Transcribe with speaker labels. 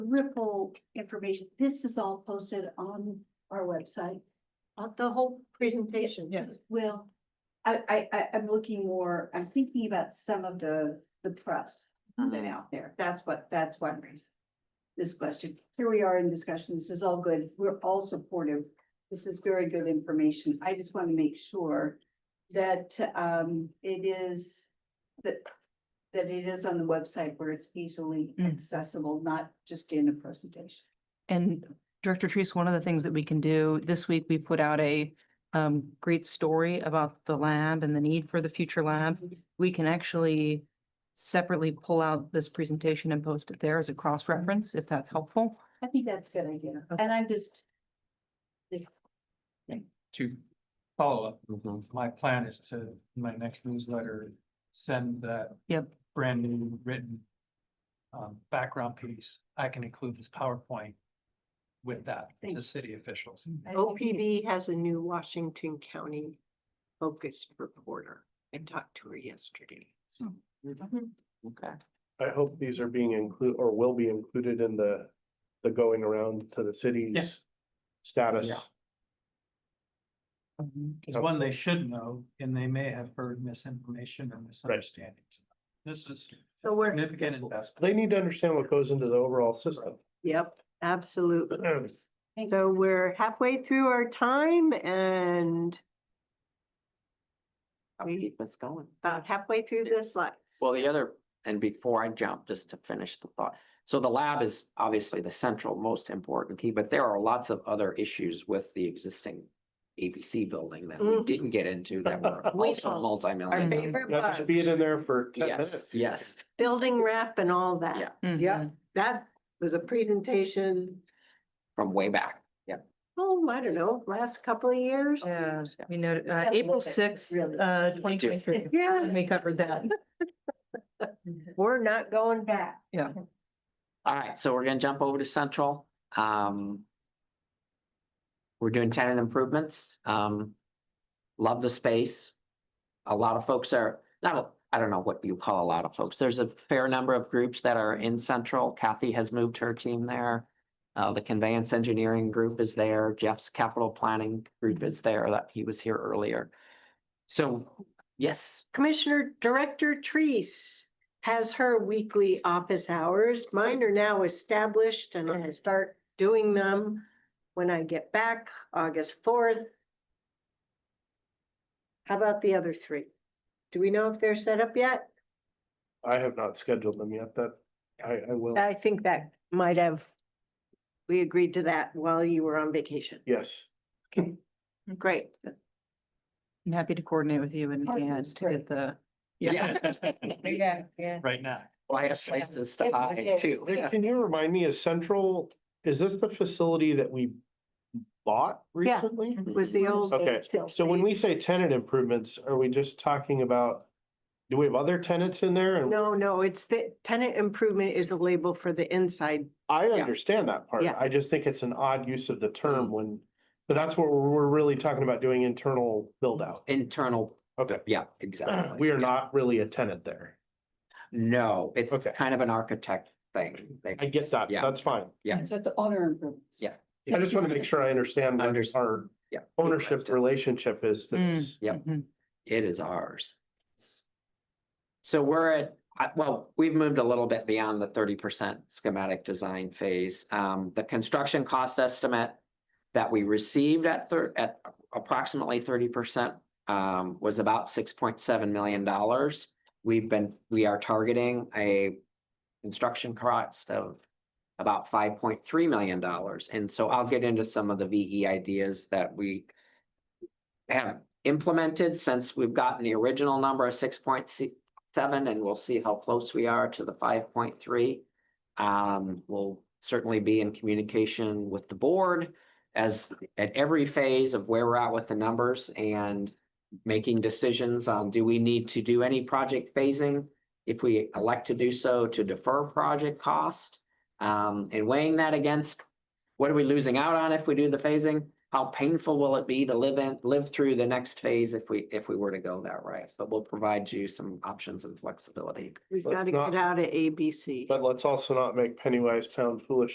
Speaker 1: ripple information. This is all posted on our website. Uh, the whole presentation.
Speaker 2: Yes.
Speaker 1: Well, I, I, I, I'm looking more, I'm thinking about some of the, the press that out there. That's what, that's one reason. This question, here we are in discussion. This is all good. We're all supportive. This is very good information. I just want to make sure that, um, it is, that, that it is on the website where it's easily
Speaker 2: Mm.
Speaker 1: accessible, not just in a presentation.
Speaker 2: And Director Treese, one of the things that we can do, this week we put out a um great story about the lab and the need for the future lab. We can actually separately pull out this presentation and post it there as a cross-reference, if that's helpful.
Speaker 1: I think that's a good idea.
Speaker 2: Okay.
Speaker 1: And I'm just,
Speaker 3: to follow up, my plan is to, in my next newsletter, send that.
Speaker 2: Yep.
Speaker 3: Brand new written. Um, background piece, I can include this PowerPoint with that, to
Speaker 4: Thank-
Speaker 3: city officials.
Speaker 1: I think
Speaker 4: OPB has a new Washington County focused reporter. I talked to her yesterday.
Speaker 5: Okay.
Speaker 6: I hope these are being included or will be included in the, the going around to the cities. Status.
Speaker 3: Yeah. It's one they should know, and they may have heard misinformation and misunderstandings. This is
Speaker 4: So we're.
Speaker 3: significant investment.
Speaker 6: They need to understand what goes into the overall system.
Speaker 4: Yep, absolutely.
Speaker 1: Thank
Speaker 4: So we're halfway through our time and
Speaker 5: I'll
Speaker 4: We-
Speaker 5: keep us going.
Speaker 4: about halfway through the slides.
Speaker 5: Well, the other, and before I jump, just to finish the thought. So the lab is obviously the central, most important key, but there are lots of other issues with the existing ABC building that we
Speaker 4: Mhm.
Speaker 5: didn't get into that were
Speaker 4: We
Speaker 5: also
Speaker 4: know.
Speaker 5: multi-million.
Speaker 4: Our
Speaker 6: uh,
Speaker 5: dollar.
Speaker 4: favorite
Speaker 6: Not
Speaker 4: part,
Speaker 6: just being in there for ten
Speaker 5: Yes,
Speaker 6: minutes.
Speaker 5: yes.
Speaker 4: building wrap and all that.
Speaker 5: Yeah.
Speaker 6: Mm-hmm.
Speaker 4: Yeah. That was a presentation,
Speaker 5: From way back.
Speaker 4: oh, I don't know, last couple of years.
Speaker 2: Yeah, we know, uh,
Speaker 1: Yeah,
Speaker 2: April
Speaker 1: look at-
Speaker 2: sixth,
Speaker 1: really.
Speaker 2: uh, twenty twenty-three.
Speaker 4: Yeah.
Speaker 2: We covered that.
Speaker 4: We're not going back.
Speaker 5: All right, so we're gonna jump over to central. Um. We're doing tenant improvements. Um. Love the space. A lot of folks are, not, I don't know what you call a lot of folks. There's a fair number of groups that are in central. Kathy has moved her team there. Uh, the conveyance engineering group is there. Jeff's capital planning group is there that he was here earlier. So, yes,
Speaker 4: Commissioner Director Treese has her weekly office hours. Mine are now established and I start doing them when I get back, August fourth. How about the other three? Do we know if they're set up yet?
Speaker 6: I have not scheduled them yet, that I, I will.
Speaker 4: I think that might have, we agreed to that while you were on vacation.
Speaker 6: Yes.
Speaker 4: Great.
Speaker 2: I'm happy to coordinate with you and
Speaker 1: Oh,
Speaker 2: Ann
Speaker 1: that's
Speaker 2: to get
Speaker 1: great.
Speaker 2: the,
Speaker 5: yeah,
Speaker 1: Yeah, yeah.
Speaker 3: Right now.
Speaker 5: I have places to hide too.
Speaker 6: Nick, Can you remind me, is Central, is this the facility that we bought
Speaker 4: Yeah.
Speaker 6: recently?
Speaker 4: Was the old.
Speaker 6: Okay, so when we say tenant improvements, are we just talking about, do we have other tenants in there? And
Speaker 4: No, no, it's the tenant improvement is a label for the inside
Speaker 6: I understand that part.
Speaker 4: Yeah.
Speaker 6: I just think it's an odd use of the term when, but that's what we're, we're really talking about doing internal build out.
Speaker 5: Internal,
Speaker 6: Okay.
Speaker 5: yeah, exactly.
Speaker 6: We are
Speaker 5: Yeah.
Speaker 6: not really a tenant there.
Speaker 5: No, it's
Speaker 6: Okay.
Speaker 5: kind of an architect thing. They-
Speaker 6: I get that.
Speaker 5: Yeah.
Speaker 6: That's fine.
Speaker 5: Yeah.
Speaker 1: So it's honor improvements.
Speaker 5: Yeah.
Speaker 6: I just want to make sure I understand what
Speaker 5: Underst-
Speaker 6: our
Speaker 5: yeah.
Speaker 6: ownership relationship is to
Speaker 2: Mm.
Speaker 6: this.
Speaker 5: Yeah.
Speaker 2: Mhm.
Speaker 5: It is ours. So we're at, I- well, we've moved a little bit beyond the thirty percent schematic design phase. Um, the construction cost estimate that we received at thir- at approximately thirty percent um, was about six point seven million dollars. We've been, we are targeting a construction cost of about five point three million dollars. And so I'll get into some of the VE ideas that we have implemented since we've gotten the original number of six point seven, and we'll see how close we are to the five point three. Um, we'll certainly be in communication with the board as at every phase of where we're at with the numbers and making decisions on do we need to do any project phasing? If we elect to do so, to defer project cost, um, and weighing that against what are we losing out on if we do the phasing? How painful will it be to live in, live through the next phase if we, if we were to go that route? But we'll provide you some options and flexibility.
Speaker 4: We've
Speaker 6: Let's
Speaker 4: got to
Speaker 6: not-
Speaker 4: get out of ABC.
Speaker 6: But let's also not make penny wise pound foolish